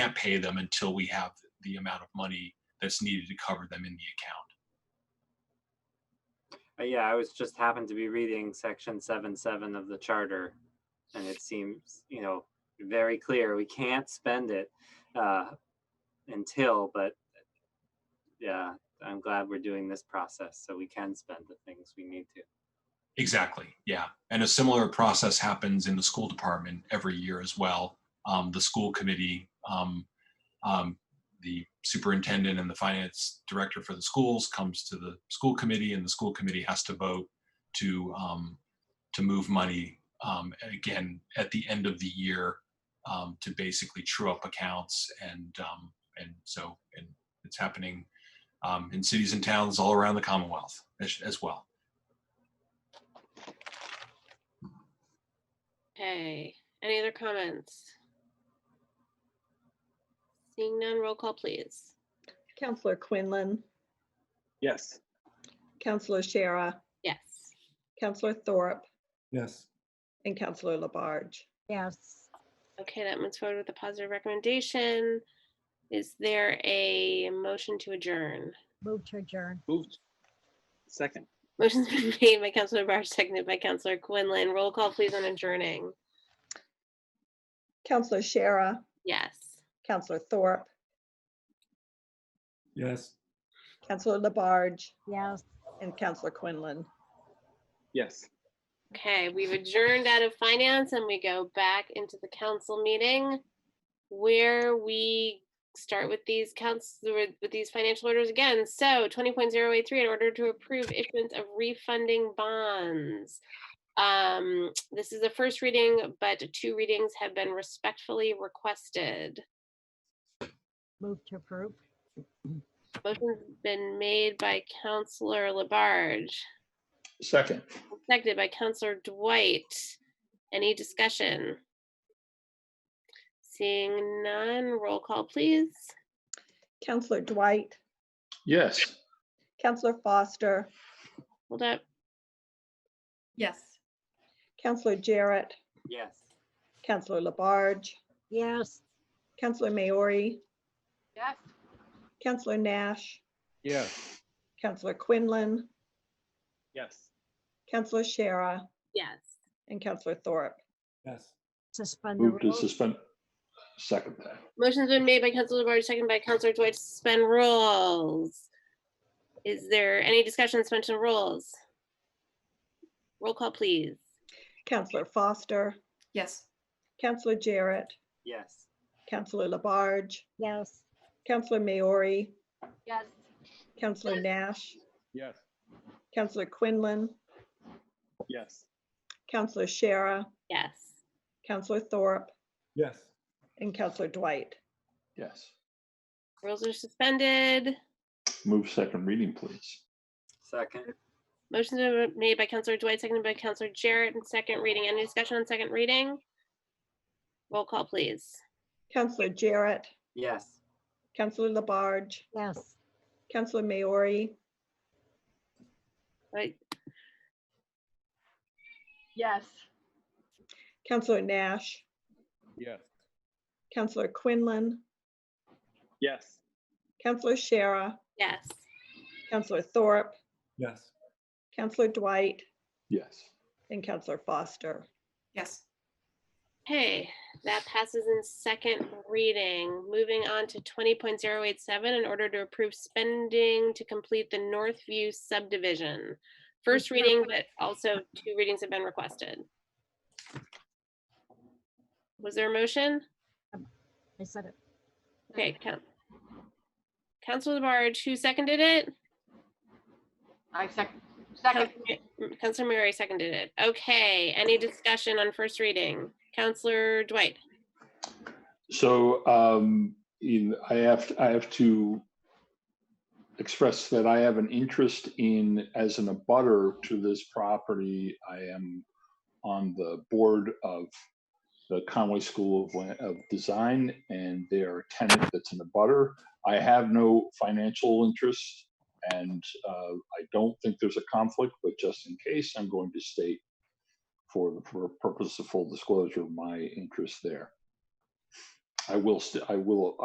can't pay them until we have the amount of money that's needed to cover them in the account. Uh, Yeah, I was just happened to be reading section seven, seven of the charter. And it seems, you know, very clear, we can't spend it uh until, but yeah, I'm glad we're doing this process so we can spend the things we need to. Exactly, yeah. And a similar process happens in the school department every year as well. Um, the school committee, um, um, the superintendent and the finance director for the schools comes to the school committee and the school committee has to vote to, um, to move money, um, again, at the end of the year, um, to basically true up accounts and, um, and so, and it's happening, um, in cities and towns all around the Commonwealth as, as well. Okay, any other comments? Seeing none, roll call, please. Counselor Quinlan, Yes. Counselor Shara, Yes. Counselor Thorpe, Yes. and Counselor Labarge. Yes, Okay, that moves forward with a positive recommendation. Is there a motion to adjourn? move to adjourn. Moved. Second. Motion's been made by Counselor Barge, seconded by Counselor Quinlan. Roll call, please, on adjourning. Counselor Shara, Yes. Counselor Thorpe, Yes. Counselor Labarge, Yes. and Counselor Quinlan. Yes. Okay, we've adjourned out of finance and we go back into the council meeting where we start with these counts, with with these financial orders again. So twenty point zero eight three, in order to approve issuance of refunding bonds. Um, this is the first reading, but two readings have been respectfully requested. Move to approve. Motion's been made by Counselor Labarge, Second, seconded by Counselor Dwight. Any discussion? Seeing none, roll call, please. Counselor Dwight, yes. Counselor Foster, Hold up. Yes. Counselor Jarrett, Yes. Counselor Labarge, Yes. Counselor Maori, Yes. Counselor Nash, Yes. Counselor Quinlan, Yes. Counselor Shara, Yes. and Counselor Thorpe. Yes. Suspend the Move to rules. suspend. Second that. Motion's been made by Counselor Labarge, seconded by Counselor Dwight to suspend rules. Is there any discussion on suspension of rules? Roll call, please. Counselor Foster, Yes. Counselor Jarrett, Yes. Counselor Labarge, Yes. Counselor Maori, Yes. Counselor Nash, Yes. Counselor Quinlan, Yes. Counselor Shara, Yes. Counselor Thorpe, Yes. and Counselor Dwight. Yes. Rules are suspended. Move second reading, please. Second, Motion's been made by Counselor Dwight, seconded by Counselor Jarrett, and second reading. Any discussion on second reading? Roll call, please. Counselor Jarrett, yes. Counselor Labarge, Yes. Counselor Maori, Right, Yes. Counselor Nash, Yes. Counselor Quinlan, Yes. Counselor Shara, yes. Counselor Thorpe, Yes. Counselor Dwight, Yes. and Counselor Foster. Yes. Okay, that passes in second reading. Moving on to twenty point zero eight seven, in order to approve spending to complete the Northview subdivision. First reading, but also two readings have been requested. Was there a motion? I said it. Okay, count. Counselor Labarge, who seconded it? I second. Second. Counselor Murray seconded it. Okay, any discussion on first reading? Counselor Dwight? So um, in, I have, I have to express that I have an interest in, as an abutter to this property, I am on the board of the Conway School of, Lan- of Design and their tenant that's in the butter. I have no financial interest and uh, I don't think there's a conflict, but just in case, I'm going to state for the pur- purpose of full disclosure, my interest there. I will, st- I will,